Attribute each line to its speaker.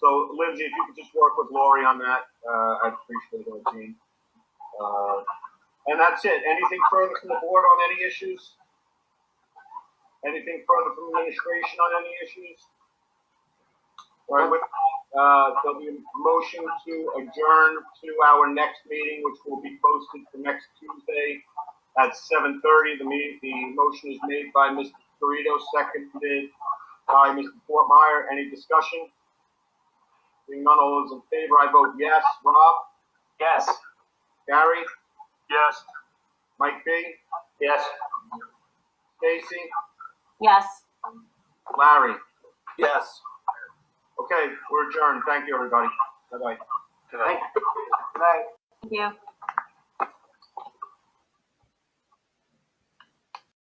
Speaker 1: So Lindsay, if you could just work with Lori on that, uh, I'd appreciate it, team. Uh, and that's it. Anything further from the board on any issues? Anything further from administration on any issues? All right, with, that, uh, there'll be a motion to adjourn to our next meeting, which will be posted for next Tuesday at seven thirty. The meeting, the motion is made by Mr. Dorito, seconded by Mr. Fortmeyer. Any discussion? Being none, all those in favor, I vote yes. Rob? Yes. Gary?
Speaker 2: Yes.
Speaker 1: Mike B?
Speaker 2: Yes.
Speaker 1: Stacy?
Speaker 3: Yes.
Speaker 1: Larry?
Speaker 2: Yes.
Speaker 1: Okay, we're adjourned. Thank you, everybody. Bye-bye.
Speaker 2: Good night.
Speaker 3: Thank you.